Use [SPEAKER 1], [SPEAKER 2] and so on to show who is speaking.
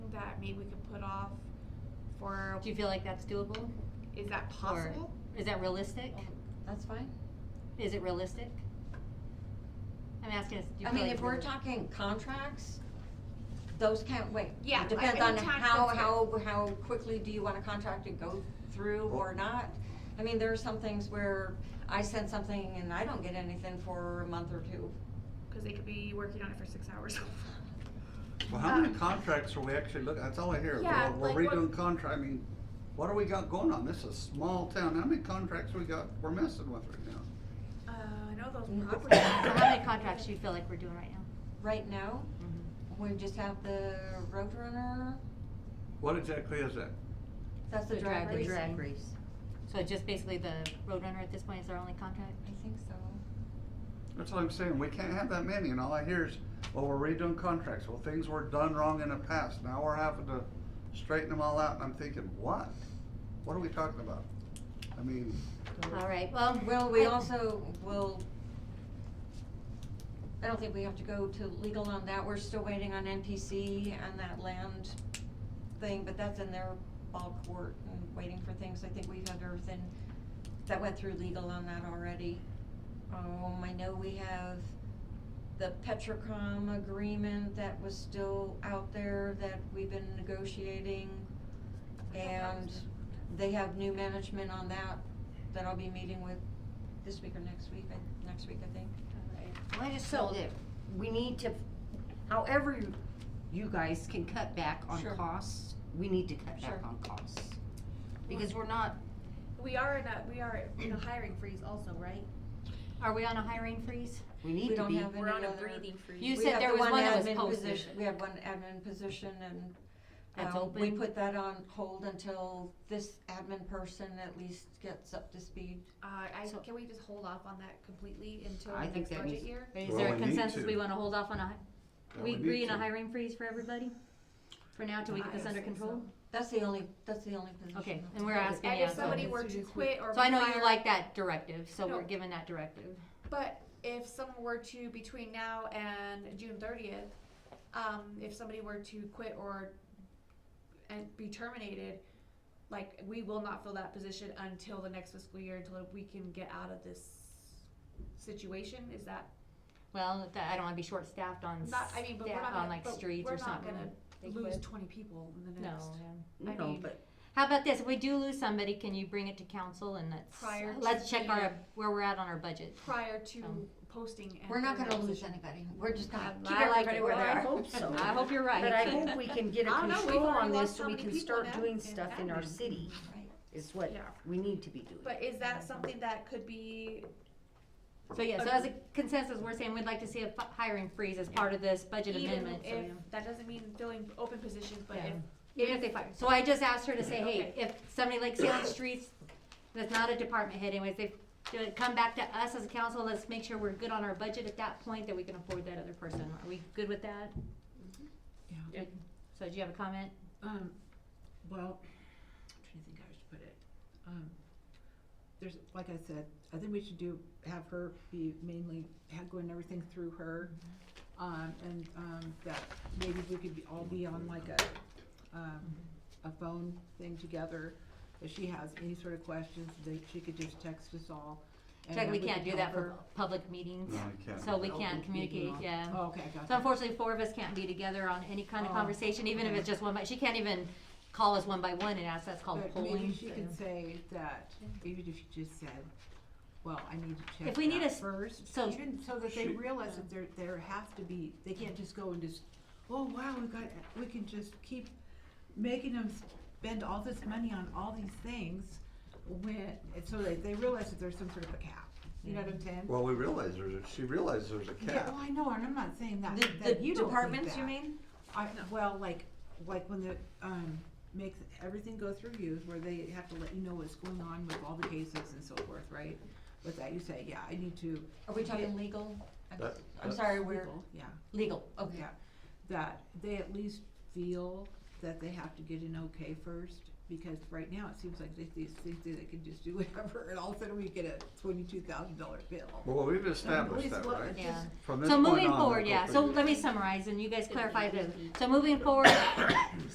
[SPEAKER 1] that maybe we could put off for,
[SPEAKER 2] Do you feel like that's doable?
[SPEAKER 1] is that possible?
[SPEAKER 2] Is that realistic?
[SPEAKER 3] That's fine.
[SPEAKER 2] Is it realistic? I'm asking, us, do you
[SPEAKER 3] I
[SPEAKER 2] feel
[SPEAKER 3] mean,
[SPEAKER 2] like
[SPEAKER 3] if we're
[SPEAKER 2] it's realistic?
[SPEAKER 3] talking contracts, those can't wait.
[SPEAKER 1] Yeah,
[SPEAKER 3] It Depends
[SPEAKER 1] I- I
[SPEAKER 3] on
[SPEAKER 1] mean, tax
[SPEAKER 3] how,
[SPEAKER 1] doesn't-
[SPEAKER 3] how, how quickly do you want a contract to go through or not? I mean, there are some things where I send something and I don't get anything for a month or two.
[SPEAKER 1] Cause they could be working on it for six hours.
[SPEAKER 4] Well, how many
[SPEAKER 1] Uh,
[SPEAKER 4] contracts are we actually looking, that's all I hear,
[SPEAKER 1] Yeah,
[SPEAKER 4] we're we're
[SPEAKER 1] like what-
[SPEAKER 4] redoing contract, I mean, what do we got going on? This is a small town, how many contracts we got, we're messing with right now?
[SPEAKER 1] Uh, I know those
[SPEAKER 3] Mm.
[SPEAKER 1] properties.
[SPEAKER 2] So Mm-hmm. how many contracts do you feel like we're doing right now?
[SPEAKER 3] Right now, we just have the Roadrunner,
[SPEAKER 4] What exactly is that?
[SPEAKER 3] that's the drag
[SPEAKER 2] drag
[SPEAKER 3] racing.
[SPEAKER 2] racing. So just basically the Roadrunner at this point is our only contract?
[SPEAKER 3] I think so.
[SPEAKER 4] That's all I'm saying, we can't have that many, and all I hear is, well, we're redoing contracts, well, things were done wrong in the past, now we're having to straighten them all out, and I'm thinking, what? What are we talking about? I mean,
[SPEAKER 2] All right, well.
[SPEAKER 3] Well, we
[SPEAKER 2] I-
[SPEAKER 3] also will, I don't think we have to go to legal on that, we're still waiting on NPC and that land thing, but that's in their ball court and waiting for things, I think we've had everything that went through legal on that already. Um, I know we have the Petrocom agreement that was still out there that we've been negotiating. And they have new management on that, that I'll be meeting with this week or next week, I, next week, I think.
[SPEAKER 5] Well, I just felt that we need to, however you- you guys can cut back on
[SPEAKER 3] Sure.
[SPEAKER 5] costs, we need to cut
[SPEAKER 3] Sure.
[SPEAKER 5] back on costs. Because we're not,
[SPEAKER 6] We are in a, we are in a hiring freeze also, right?
[SPEAKER 2] Are we on a hiring freeze?
[SPEAKER 5] we
[SPEAKER 3] We
[SPEAKER 5] need to
[SPEAKER 3] don't
[SPEAKER 5] be,
[SPEAKER 3] have any
[SPEAKER 6] We're on a
[SPEAKER 3] other-
[SPEAKER 6] breathing freeze.
[SPEAKER 2] You
[SPEAKER 3] we
[SPEAKER 2] said
[SPEAKER 3] have
[SPEAKER 2] there
[SPEAKER 3] the
[SPEAKER 2] was one that was
[SPEAKER 3] admin
[SPEAKER 2] posted.
[SPEAKER 3] position- We have one admin position and.
[SPEAKER 2] That's
[SPEAKER 3] um, We
[SPEAKER 2] open?
[SPEAKER 3] put that on hold until this admin person at least gets up to speed.
[SPEAKER 1] Uh, I,
[SPEAKER 2] So-
[SPEAKER 1] can we just hold off on that completely until
[SPEAKER 5] I
[SPEAKER 1] the
[SPEAKER 5] think
[SPEAKER 1] next
[SPEAKER 5] that
[SPEAKER 1] budget
[SPEAKER 5] needs-
[SPEAKER 1] year?
[SPEAKER 2] Is
[SPEAKER 4] Well,
[SPEAKER 2] there
[SPEAKER 4] we
[SPEAKER 2] a
[SPEAKER 4] need
[SPEAKER 2] consensus
[SPEAKER 4] to.
[SPEAKER 2] we wanna hold off on a, hi-
[SPEAKER 4] yeah,
[SPEAKER 2] we
[SPEAKER 4] need
[SPEAKER 2] agree on a
[SPEAKER 4] to.
[SPEAKER 2] hiring freeze for everybody? For now, till we get
[SPEAKER 1] I
[SPEAKER 2] this under
[SPEAKER 1] think so.
[SPEAKER 2] control?
[SPEAKER 3] That's the only, that's the only position.
[SPEAKER 2] Okay,
[SPEAKER 3] that's
[SPEAKER 2] and we're
[SPEAKER 3] open.
[SPEAKER 2] asking,
[SPEAKER 1] And
[SPEAKER 2] yeah,
[SPEAKER 1] if somebody
[SPEAKER 2] so,
[SPEAKER 1] were to quit or.
[SPEAKER 2] so I know
[SPEAKER 1] be
[SPEAKER 2] you
[SPEAKER 1] fired-
[SPEAKER 2] like that directive, so we're
[SPEAKER 1] No.
[SPEAKER 2] given that directive.
[SPEAKER 1] But if someone were to, between now and June thirtieth, um, if somebody were to quit or and be terminated, like, we will not fill that position until the next fiscal year, until we can get out of this situation, is that,
[SPEAKER 2] Well, that- I don't wanna be short-staffed on
[SPEAKER 1] not, I mean, but we're
[SPEAKER 2] sta-
[SPEAKER 1] not
[SPEAKER 2] on
[SPEAKER 1] gonna,
[SPEAKER 2] like
[SPEAKER 1] but
[SPEAKER 2] streets
[SPEAKER 1] we're
[SPEAKER 2] or
[SPEAKER 1] not
[SPEAKER 2] something.
[SPEAKER 1] gonna
[SPEAKER 2] They
[SPEAKER 1] lose
[SPEAKER 2] quit.
[SPEAKER 1] twenty people in the
[SPEAKER 2] No,
[SPEAKER 1] next.
[SPEAKER 2] yeah.
[SPEAKER 1] I
[SPEAKER 5] no,
[SPEAKER 1] mean-
[SPEAKER 5] but
[SPEAKER 2] How about this, if we do lose somebody, can you bring it to council and let's,
[SPEAKER 1] Prior to
[SPEAKER 2] let's check our,
[SPEAKER 1] the-
[SPEAKER 2] where we're at on our budget?
[SPEAKER 1] Prior to
[SPEAKER 2] Um,
[SPEAKER 1] posting. and
[SPEAKER 3] We're not
[SPEAKER 1] filling
[SPEAKER 3] gonna
[SPEAKER 1] that
[SPEAKER 3] lose
[SPEAKER 1] position.
[SPEAKER 3] anybody, we're just gonna
[SPEAKER 2] Um,
[SPEAKER 3] keep
[SPEAKER 2] I like
[SPEAKER 3] everybody
[SPEAKER 2] it.
[SPEAKER 3] where
[SPEAKER 2] Well,
[SPEAKER 3] they
[SPEAKER 2] I
[SPEAKER 3] are.
[SPEAKER 5] hope so.
[SPEAKER 2] I hope you're right.
[SPEAKER 5] But I hope we can get a
[SPEAKER 1] I don't know, we've
[SPEAKER 5] control
[SPEAKER 1] already
[SPEAKER 5] on this
[SPEAKER 1] lost
[SPEAKER 5] so
[SPEAKER 1] how
[SPEAKER 5] we
[SPEAKER 1] many
[SPEAKER 5] can
[SPEAKER 1] people
[SPEAKER 5] start
[SPEAKER 1] now
[SPEAKER 5] doing
[SPEAKER 1] in
[SPEAKER 5] stuff in our
[SPEAKER 1] admin.
[SPEAKER 5] city,
[SPEAKER 3] Right.
[SPEAKER 5] is what
[SPEAKER 1] Yeah.
[SPEAKER 5] we need to be doing.
[SPEAKER 1] But is that something that could be,
[SPEAKER 2] So yeah, so as a consensus, we're saying we'd like to see a fi- hiring freeze as part of this budget
[SPEAKER 1] even
[SPEAKER 2] amendment, so,
[SPEAKER 1] if,
[SPEAKER 2] yeah.
[SPEAKER 1] that doesn't mean filling open positions, but
[SPEAKER 2] Yeah.
[SPEAKER 1] if
[SPEAKER 2] Even if they fire, so I just asked her to say, hey, if somebody like Salem Streets, that's not a department head anyways, they do it, come back to us as a council, let's make sure we're good on our budget at that point, that we can afford that other person, are we good with that?
[SPEAKER 6] Yeah.
[SPEAKER 2] So do you have a comment?
[SPEAKER 7] Um, well, I'm trying to think how I should put it. Um, there's, like I said, I think we should do, have her be mainly, have going everything through her.
[SPEAKER 2] Mm-hmm.
[SPEAKER 7] Um, and, um, that maybe we could be, all be on like a, um, a phone thing together. If she has any sort of questions, that she could just text us all. and
[SPEAKER 2] Like,
[SPEAKER 7] then
[SPEAKER 2] we can't do
[SPEAKER 7] can
[SPEAKER 2] that
[SPEAKER 7] tell
[SPEAKER 2] for public meetings,
[SPEAKER 4] No, I can't.
[SPEAKER 2] so we
[SPEAKER 7] Oh,
[SPEAKER 2] can't
[SPEAKER 7] we- we do
[SPEAKER 2] communicate,
[SPEAKER 7] not.
[SPEAKER 2] yeah.
[SPEAKER 7] her- Oh, okay, I got
[SPEAKER 2] So
[SPEAKER 7] that.
[SPEAKER 2] unfortunately, four of us can't be together on any kind of
[SPEAKER 7] Oh,
[SPEAKER 2] conversation, even if
[SPEAKER 7] okay.
[SPEAKER 2] it's just one by, she can't even call us one by one and ask, that's called
[SPEAKER 7] But maybe
[SPEAKER 2] polling.
[SPEAKER 7] she
[SPEAKER 2] so.
[SPEAKER 7] could say that, even if she just said, well, I need to check
[SPEAKER 2] If we need a
[SPEAKER 7] that
[SPEAKER 2] s-
[SPEAKER 7] first,
[SPEAKER 2] so-
[SPEAKER 7] even so that they
[SPEAKER 4] She-
[SPEAKER 7] realize that there, there has to be, they can't just go and just, oh, wow, we got, we can just keep making them spend all this money on all these things when, and so that they realize that there's some sort of a cap, you know what I'm saying?
[SPEAKER 4] Well, we realize there's, a- she realized there's a
[SPEAKER 7] Yeah,
[SPEAKER 4] cap.
[SPEAKER 7] well, I know, and I'm not saying that,
[SPEAKER 3] The,
[SPEAKER 7] that
[SPEAKER 3] the
[SPEAKER 7] you don't think
[SPEAKER 3] departments, Uh, you
[SPEAKER 7] that.
[SPEAKER 3] mean?
[SPEAKER 7] I, well, like, like when the, um, makes, everything go through you, where they have to let you know what's going on with all the cases and so forth, right? With that, you say, yeah, I need to.
[SPEAKER 3] Are we talking
[SPEAKER 7] get
[SPEAKER 3] legal? I'm-
[SPEAKER 4] That-
[SPEAKER 3] I'm
[SPEAKER 4] that's-
[SPEAKER 3] sorry, we're,
[SPEAKER 7] legal," Yeah,
[SPEAKER 3] legal, okay.
[SPEAKER 7] yeah, that they at least feel that they have to get an okay first, because right now it seems like they, they think that they can just do whatever, and all of a sudden we get a twenty-two thousand dollar bill.
[SPEAKER 4] Well, we've established
[SPEAKER 7] Police
[SPEAKER 4] that,
[SPEAKER 7] look-
[SPEAKER 4] right?
[SPEAKER 2] Yeah.
[SPEAKER 4] From this
[SPEAKER 2] So
[SPEAKER 4] point
[SPEAKER 2] moving
[SPEAKER 4] on,
[SPEAKER 2] forward,
[SPEAKER 4] we'll
[SPEAKER 2] yeah,
[SPEAKER 4] go
[SPEAKER 2] so
[SPEAKER 4] through
[SPEAKER 2] let me
[SPEAKER 4] this.
[SPEAKER 2] summarize and you guys clarify this. So moving forward,